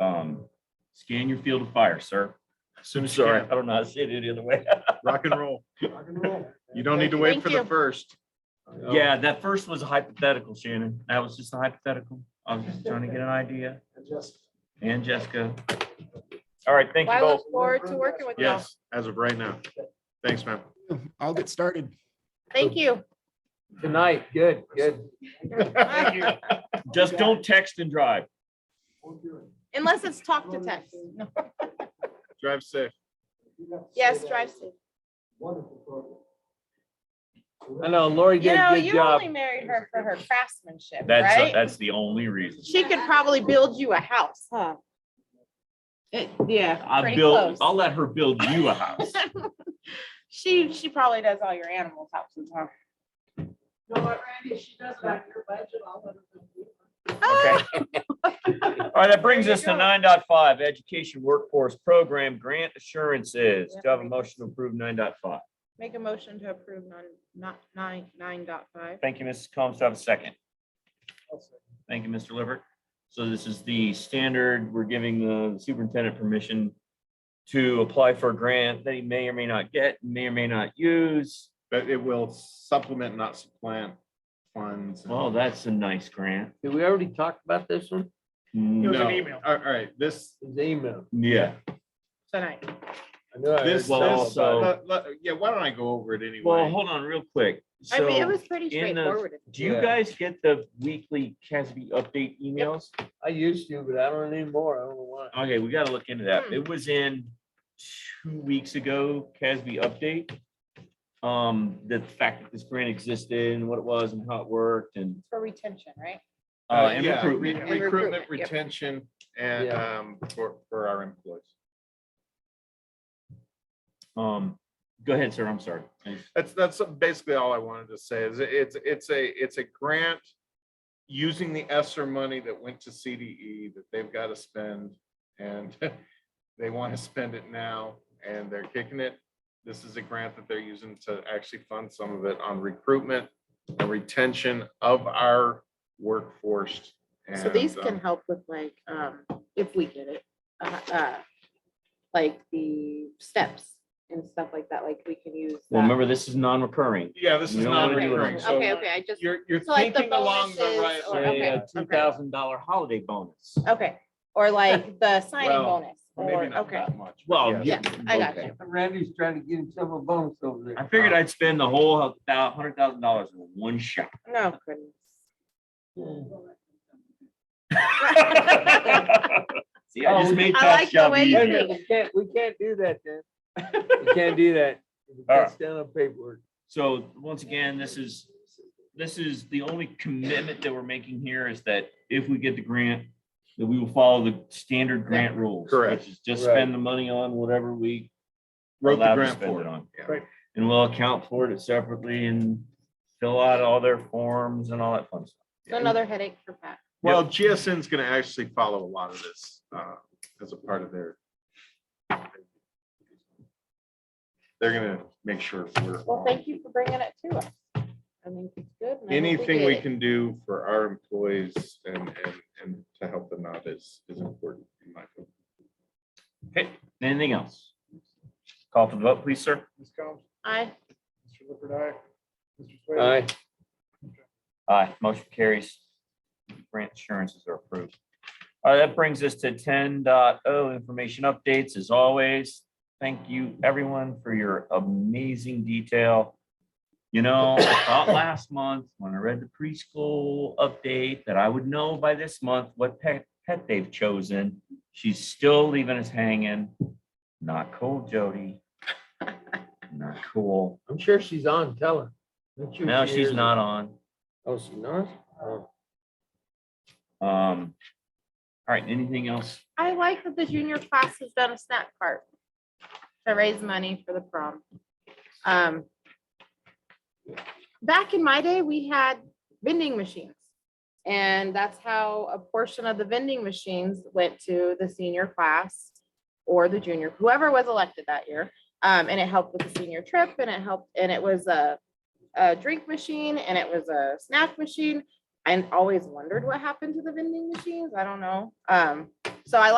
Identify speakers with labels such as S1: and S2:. S1: Um, scan your field of fire, sir.
S2: As soon as you
S1: Sorry, I
S2: can,
S1: don't know how to say it any other way.
S2: rock and roll. You don't need to wait
S3: Thank
S2: for the
S3: you.
S2: first.
S1: Yeah, that first was a hypothetical, Shannon. That was just a hypothetical. I was just trying to get an idea. And Jessica. All right, thank you
S3: I
S1: both.
S3: look forward to working with you.
S2: Yes, as of right now. Thanks, man.
S4: I'll get started.
S3: Thank you.
S5: Tonight, good, good.
S1: Just don't text and drive.
S3: Unless it's talk to text.
S2: Drive safe.
S3: Yes, drive safe.
S5: I know Lori
S3: You
S5: did
S3: know,
S5: a good
S3: you
S5: job.
S3: only married her for her craftsmanship,
S1: That's,
S3: right?
S1: that's the only reason.
S3: She could probably build you a house, huh? It, yeah,
S1: I
S3: pretty
S1: built,
S3: close.
S1: I'll let her build you a house.
S3: She, she probably does all your animals' houses, huh?
S6: No, but Randy, she does like your budget, I'll let her know.
S1: Okay. All right, that brings
S3: There
S1: us
S3: you
S1: to
S3: go.
S1: nine point five education workforce program grant assurances. Do I have a
S3: Yeah.
S1: motion to approve nine point five?
S3: Make a motion to approve nine, not nine, nine dot five.
S1: Thank you, Mrs. Combs. Do I have a second? Thank you, Mr. Lippert. So this is the standard, we're giving the superintendent permission to apply for a grant that he may or may not get, may or may not use.
S2: But it will supplement, not supplant funds. and-
S1: Well, that's a nice grant.
S5: Did we already talk about this one?
S1: Mm,
S2: No.
S6: email.
S2: All all right, this,
S5: His email.
S1: Yeah,
S3: Tonight.
S5: I knew I heard
S2: this,
S5: all
S1: Well,
S5: about
S2: this, uh,
S1: also-
S5: it.
S2: let- let- yeah, why don't I go over it
S1: well,
S2: anyway?
S1: hold on real quick.
S3: I mean, it
S1: So
S3: was pretty
S1: in the-
S3: straightforward.
S1: do you
S5: Yeah.
S1: guys get the weekly CASB update emails?
S5: I used to, but I don't anymore. I don't know why.
S1: Okay, we gotta look into that.
S3: Hmm.
S1: It was in two weeks ago, Casby update. Um, the fact that this grant existed and what it was and how it worked and,
S3: For retention, right?
S1: uh,
S2: Uh,
S1: and
S2: yeah, re-
S1: recruitment.
S3: And
S2: Recruitment,
S3: recruitment, yep.
S2: retention, and
S5: Yeah.
S2: um, for, for our employees.
S1: Um, go ahead, sir, I'm sorry.
S3: Uh,
S2: That's, that's basically all I wanted to say is it- it's, it's a, it's a grant using the ESSER money that went to CDE that they've got to spend and they want to spend it now and they're kicking it. This is a grant that they're using to actually fund some of it on recruitment and retention of our workforce.
S3: So these
S2: and,
S3: can
S2: um,
S3: help with like, um, if we get it, uh, uh, like the steps and stuff like that, like we can use.
S1: Well,
S3: that.
S1: remember, this is non-recurring.
S2: Yeah, this
S1: You
S2: is
S1: don't
S2: not
S1: wanna do it.
S2: recurring. So
S3: Okay, okay, I just,
S2: you're, you're
S3: So like the
S2: thinking along the
S3: bonuses
S2: right.
S3: or-
S2: lines.
S3: Oh, okay,
S1: Say a uh,
S3: okay. Oh,
S1: two thousand dollar holiday bonus.
S3: okay, or like the signing
S2: Well,
S3: bonus, or,
S2: Maybe not
S3: okay.
S2: that much. but
S1: Well.
S2: yes.
S3: Yes, I got
S1: okay.
S3: you.
S5: Randy's trying to get himself a bonus over there.
S1: I figured
S2: Uh,
S1: I'd spend the whole hundred thousand dollars in one shot.
S3: No, goodness.
S1: See, I
S2: Oh,
S1: just made
S3: I
S1: that
S3: like the
S1: shot
S3: way you
S1: easier.
S3: think.
S5: We can't, we can't do that then. We can't do that.
S1: All right.
S5: That's down on paperwork.
S1: So once again, this is, this is the only commitment that we're making here is that if we get the grant, that we will follow the standard grant rules.
S2: Correct.
S1: Which is just
S5: Right.
S1: spend the money on whatever we
S2: Wrote the
S1: allowed to
S2: grant
S1: spend
S2: for
S1: it
S2: it.
S1: on.
S2: Yeah.
S5: Right.
S1: And we'll account for it separately and fill out all their forms and all that fun stuff.
S3: So Another headache for Pat.
S2: Well, GSN's gonna actually follow a lot of this uh, as a part of their. They're gonna make sure we're.
S3: Well,
S2: on
S3: thank you for bringing it to us. I think it's good. and I hope
S2: Anything
S3: get
S2: we
S3: it.
S2: can do for our employees and, and, and to help them out is, is important. in my
S1: Okay,
S2: opinion.
S1: anything else? Call for the vote, please, sir.
S7: Ms. Combs,
S3: I,
S7: Mr. Lippert, aye. Mr.
S5: All
S7: Swayze.
S5: right.
S1: Aye, motion carries. Grant assurances are approved. All right, that brings us to 10.0 information updates as always. Thank you, everyone, for your amazing detail. You know, I thought last month when I read the preschool update that I would know by this month what pet, pet they've chosen. She's still leaving us hanging. Not cool, Jody. Not cool.
S5: I'm sure she's on, tell her. I'm sure
S1: No,
S5: she
S1: she's
S5: is.
S1: not on.
S5: Oh, she's not? Oh.
S1: Um, all right, anything else?
S3: I like that the junior class has done a snack cart to raise money for the prom. Um, back in my day, we had vending machines. And that's how a portion of the vending machines went to the senior class or the junior, whoever was elected that year. Um, and it helped with the senior trip and it helped, and it was a, a drink machine and it was a snack machine. I always wondered what happened to the vending machines. I don't know. Um, so I like.